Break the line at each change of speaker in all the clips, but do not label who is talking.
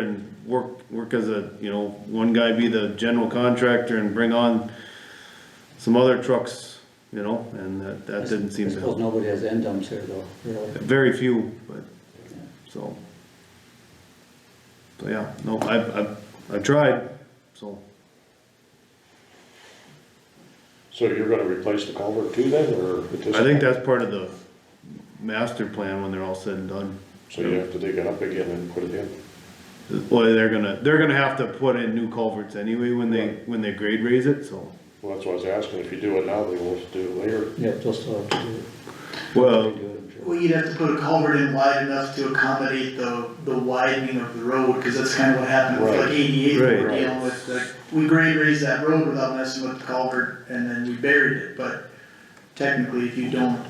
and work, work as a, you know, one guy be the general contractor and bring on some other trucks, you know, and that, that didn't seem
I
to help.
suppose nobody has end dumps here though, really.
Very few, but, so. So, yeah, no, I, I, I tried, so,
So you're gonna replace the culvert too then, or at this?
I think that's part of the master plan when they're all said and done.
So you have to dig it up again and put it in?
Well, they're gonna, they're gonna have to put in new culverts anyway when they, when they grade raise it, so.
Well, that's what I was asking, if you do it now, they will have to do it later.
Yeah, they'll still have to do it.
Well,
They do it, I'm sure.
Well, you'd have to put a culvert in wide enough to accommodate the, the widening of the road, cause that's kinda what happened with like
Right.
eighty-eight, when we we're
Right.
dealing with, like, we grade raised that road without messing with the culvert, and then we buried it, but technically, if you don't,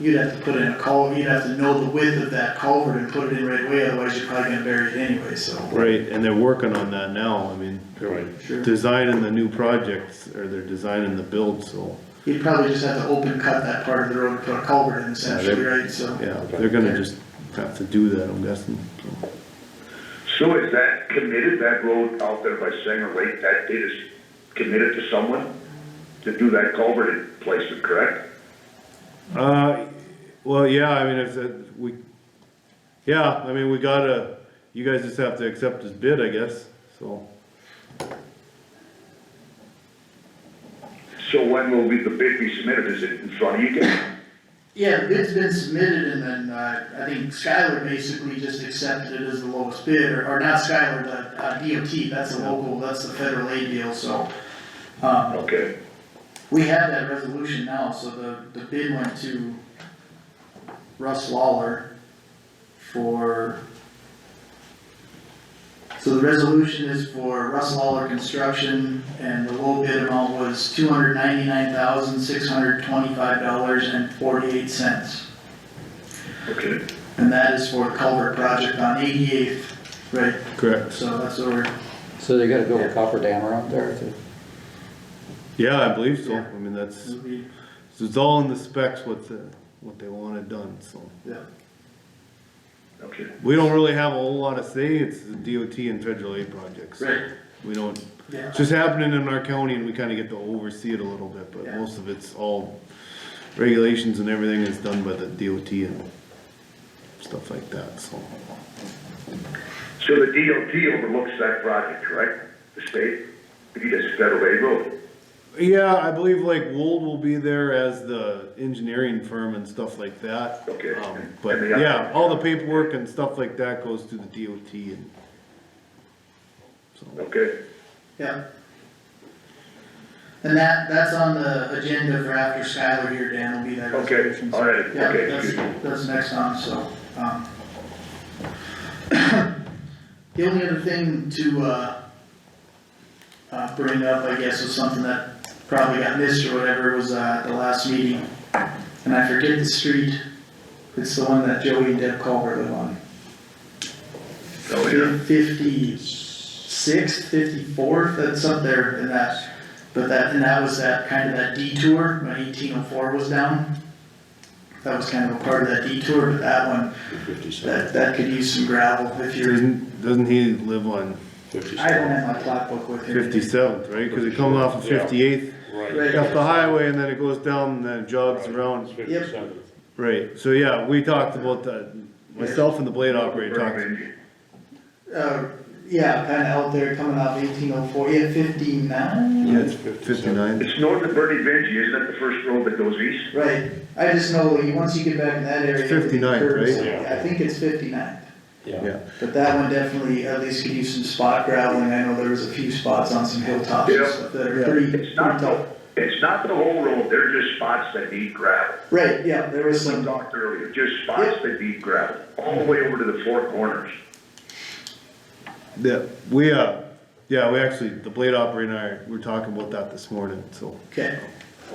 you'd have to put in a culvert, you'd have to know the width of that culvert and put it in right away, otherwise you're probably gonna bury it anyway, so.
Right, and they're working on that now, I mean, they're
Right.
Sure.
designing the new projects, or they're designing the build, so,
You'd probably just have to open cut that part of the road and put a culvert in essentially, right, so.
yeah, they're gonna just have to do that, I'm guessing. so.
So is that committed, that road out there by Sanger Lake, that it is committed to someone to do that culvert and place it, correct?
Uh, well, yeah, I mean, it's, uh, we, yeah, I mean, we gotta, you guys just have to accept this bid, I guess, so.
So when will be the bid be submitted, is it in front of you guys?
Yeah, the bid's been submitted and then, uh, I think Skylar basically just accepted it as the lowest bid, or, or not Skylar, the, uh, DOT, that's the local, that's the federal aid deal, so. Um,
Okay,
we have that resolution now, so the, the bid went to Russ Lawler for. So the resolution is for Russ Lawler Construction, and the low bid amount was two hundred ninety-nine thousand, six hundred twenty-five dollars and forty-eight cents.
okay.
And that is for culvert project on eighty-eighth, right,
Correct.
so that's over,
So they gotta build a copper dam around there to,
Yeah, I believe so, I mean, that's,
this would be,
it's all in the specs, what's, uh, what they wanted done, so.
yeah.
Okay.
We don't really have a whole lot of say, it's the DOT and federal aid projects. so
Right.
We don't,
Yeah.
It's just happening in our county and we kinda get to oversee it a little bit, but
Yeah.
most of it's all regulations and everything is done by the DOT and stuff like that, so.
So the DOT overlooks that project, correct? The state, it is federal aid road.
Yeah, I believe like Wold will be there as the engineering firm and stuff like that.
Okay.
Um, But
And the-
yeah, all the paperwork and stuff like that goes through the DOT and. So,
Okay,
Yeah. And that, that's on the agenda for after Skylar here, Dan will be there.
okay, all right,
Yeah,
okay,
that's,
excuse me.
that's next on, so, um. The only other thing to, uh, uh, bring up, I guess, was something that probably got missed or whatever, was, uh, at the last meeting. And I forget the street, it's the one that Joey and Deb Culver live on.
Oh, yeah.
Fifty-sixth, fifty-fourth, that's up there in that, but that, and that was that, kind of that detour, when eighteen oh four was down. That was kind of a part of that detour, but that one,
Fifty-seven,
that, that could use some gravel if you're,
doesn't, doesn't he live on
I don't
fifty-seven.
have my plot book with me.
fifty-seventh, right? Cause it comes off of
Yeah.
fifty-eighth.
Right.
Right.
off the highway and then it goes down and then it jogs around.
Fifty-seven.
Right, so yeah, we talked about that, myself and the blade operator talked,
Uh, yeah, kind of out there coming off eighteen oh four, yeah, fifty-nine?
yeah, it's fifty-nine.
It's north of Bernie Vinci, isn't that the first road that goes east?
Right, I just know, you- once you get back in that area.
59th,
curves,
right? Yeah.
I think it's fifty-nine.
Yeah,
But that one definitely, at least could use some spot graveling, I know there was a few spots on some hilltops and
Yeah.
stuff that are
Yeah.
pretty, pretty
It's not
tough.
the, it's not the whole road, they're just spots that need gravel.
Right, yeah, there was
We
some,
talked earlier, just spots that need gravel, all the way over to the four corners.
yeah, we, uh, yeah, we actually, the blade operator and I, we were talking about that this morning, so.
okay,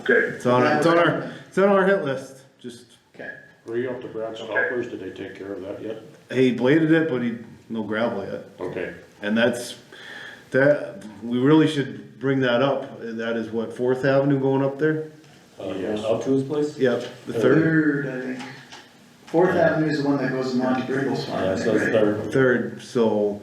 Okay,
It's on, it's on our, it's on our hit list, just,
okay.
Were you up to Brad Stoppers, did they take care of that yet?
he bladed it, but he, no gravel yet.
Okay,
And that's, that, we really should bring that up, and that is what, Fourth Avenue going up there?
Uh,
Yes.
up to his place?
Yep, the third,
I think. Fourth Avenue is the one that goes to Monte Brinkle's farm.
Yeah, Uh, so it's
right?
third.
third, so,